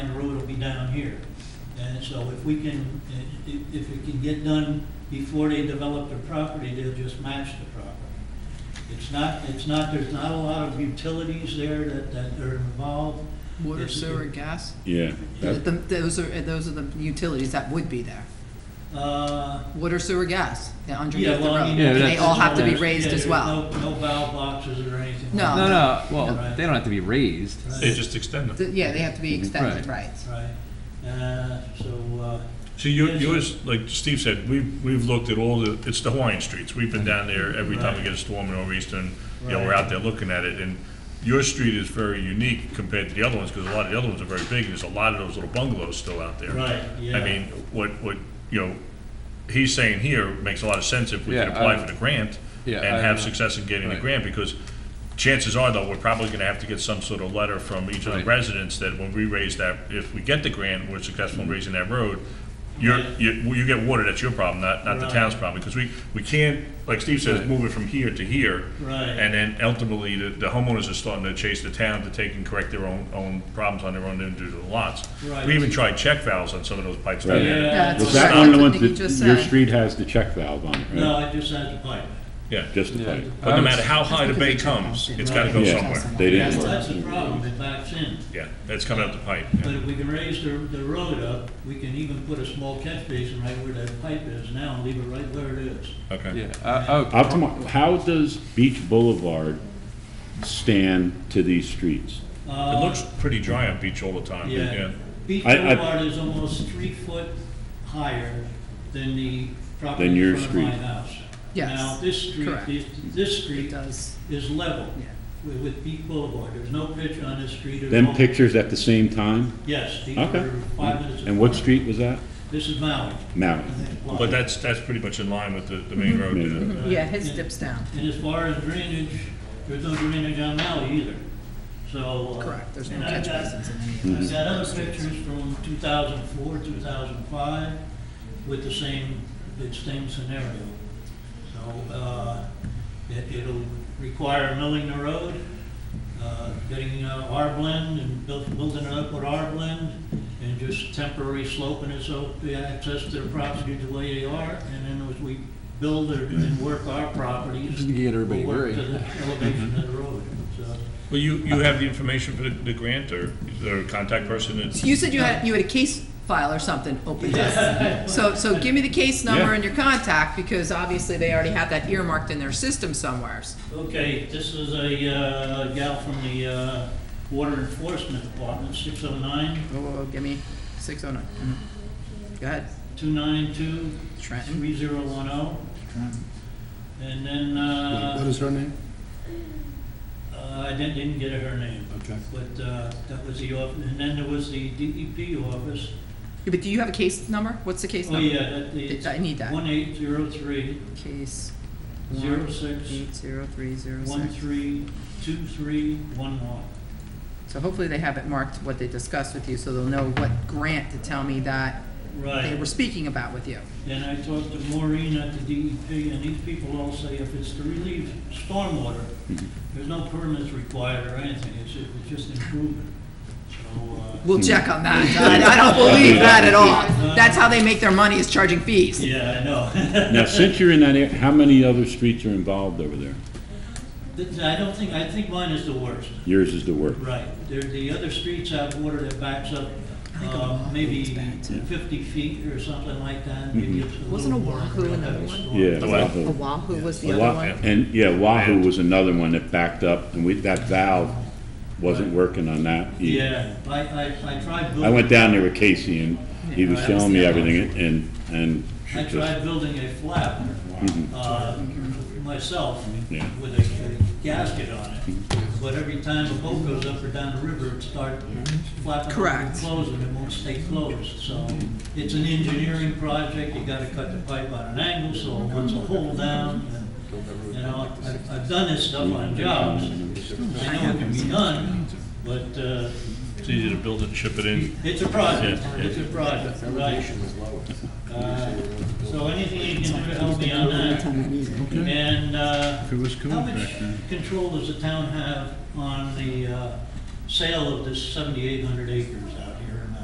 down here. And so if we can, if, if it can get done before they develop their property, they'll just match the property. It's not, it's not, there's not a lot of utilities there that, that are involved. Water, It's- sewer, gas? Yeah, But that, the- Those are, those are the utilities that would be there. Uh, Water, sewer, gas, they're yeah, underneath the well, I road. mean. Yeah, And they that's- all have to be Yeah, raised yeah, as there's well. No, no valve boxes or anything. like No. No, that, no, well, Right. they don't have to be raised. right? They just extend Th- them. Yeah, they have to be extended, right. Right, uh, so, uh, So you- Yes. yours, like Steve said, we've, we've looked at all the, it's the Hawaiian streets. We've been down there every time we Right. get a storm in over Eastern, you know, we're Right. out there looking at it. And your street is very unique compared to the other ones, because a lot of the other ones are very big, and there's a lot of those little bungalows still out there. Right, yeah. I mean, what, what, you know, he's saying here makes a lot of sense if we can Yeah, apply I- for the grant Yeah, and I- have success in getting the Right. grant, because chances are, though, we're probably gonna have to get some sort of letter from each of the Right. residents that when we raise that, if we get the grant, we're successful in Mm-hmm. raising that road, you're, Right. you, well, you get water, that's your problem, not, not the Right. town's problem, because we, we can't, like Steve says, Right. move it from here to here. Right. And then ultimately, the, the homeowners are starting to chase the town to take and correct their own, own problems on their own individual lots. Right. We even tried check valves on some of those pipes down Right. there. Yeah. was That's that what- one that's of the what ones Nikki that, just your said. street has the check valve on it, right? no, I just had to pipe Yeah, Just the pipe. but no I matter was- how high the bay comes, it's gotta go Yeah. somewhere. They didn't it. work. That's the problem, it backs in. Yeah, that's coming out the pipe. yeah. But if we can raise the, the road up, we can even put a small catch basin right where that pipe is now and leave it right where it is. Okay. Yeah, uh, oh, How come- how does Beach Boulevard stand to these streets? It looks pretty dry on beach all the time, yeah. Uh, Yeah. Beach I- I- Boulevard is almost three foot higher than the Than property your in front of my street. house. Yes, Now, this street, correct. this, this It street does, is level yeah. with, with Beach Boulevard. There's no picture on this street. There's Them no- pictures at the same time? Yes, these Okay. are five minutes. And what apart. street was that? This is Maui. Maui. But that's, that's pretty much in line with the, the main road. Main yeah. road. Yeah, his dips down. And as far as drainage, there's no drainage on Maui either, so. uh, Correct, there's no and I catch got- basins in any of Mm-hmm. I've those. got other pictures from two thousand four, two thousand five, with the same, the same scenario. So, uh, it, it'll require milling the road, uh, getting uh, our blend and built- building it up with our blend, and just temporary sloping it so the access to the property the way they are, and then as we build or- and work our properties. Just to get everybody we'll work worried. to the elevation of the road, so. Well, you, you have the information for the, the grant or the contact person So that's, You said you had, you had a case file or something open to Yeah. us. So, so give me the case number Yeah. and your contact, because obviously they already have that earmarked in their system somewheres. Okay, this is a uh, gal from the uh, Water Enforcement Department, 609 Whoa, whoa, whoa, give me six oh nine. Mm-hmm. Go ahead, 292 Trenton. 3010. oh. And then, uh, What is her name? uh, I didn't didn't get her name, Okay. but uh, that was the, off- and then there was the DEP office. Yeah, But do you have a case number? What's the case Oh, number? yeah, that is I need that. 1803 Case. Zero six. Eight zero three zero six. 132311. So hopefully they have it marked what they discussed with you, so they'll know what grant to tell me that they were Right. speaking about with you. And I talked to Maureen at the DEP, and these people all say if it's to relieve stormwater, Mm-hmm. there's no permits required or anything, it's, it's just improvement. So, uh, Hmm. We'll check on that. I I don't believe that at all. That's how they make their money is charging fees. yeah, I know. Now, since you're in that area, how many other streets are involved over there? Th- I don't think, I think mine is the worst, Yours is the worst. right. There, the other streets have water that backs up, uh, maybe bad, too. fifty feet or something like that, maybe it's a little. Wasn't more Oahu than a another heavy one? storm. Mm-hmm. Yeah. The what? Wahoo. Oahu was the Wa- other one. And, yeah, Wahoo was another one that backed up, and we, that valve wasn't working on that either. Yeah, I, I, I tried I went building, down there with Casey, and he was Yeah. telling me everything, and, and I tried building a flap uh, myself Yeah. with a a gasket on it. But every time a boat goes up or down the river, it starts flapping open and Correct. closing, it won't stay closed. So it's an engineering project, you gotta cut the pipe on an angle, so it wants a hole down. and, You know, I've, I've done this stuff on jobs, I know it can be done, but uh, it's easy to build it and ship it in. it's a project, Yeah, yeah. it's a project, right? Uh, So anything you can do to help me on that? And uh, how much control does the town have on the uh, sale of this 7,800 acres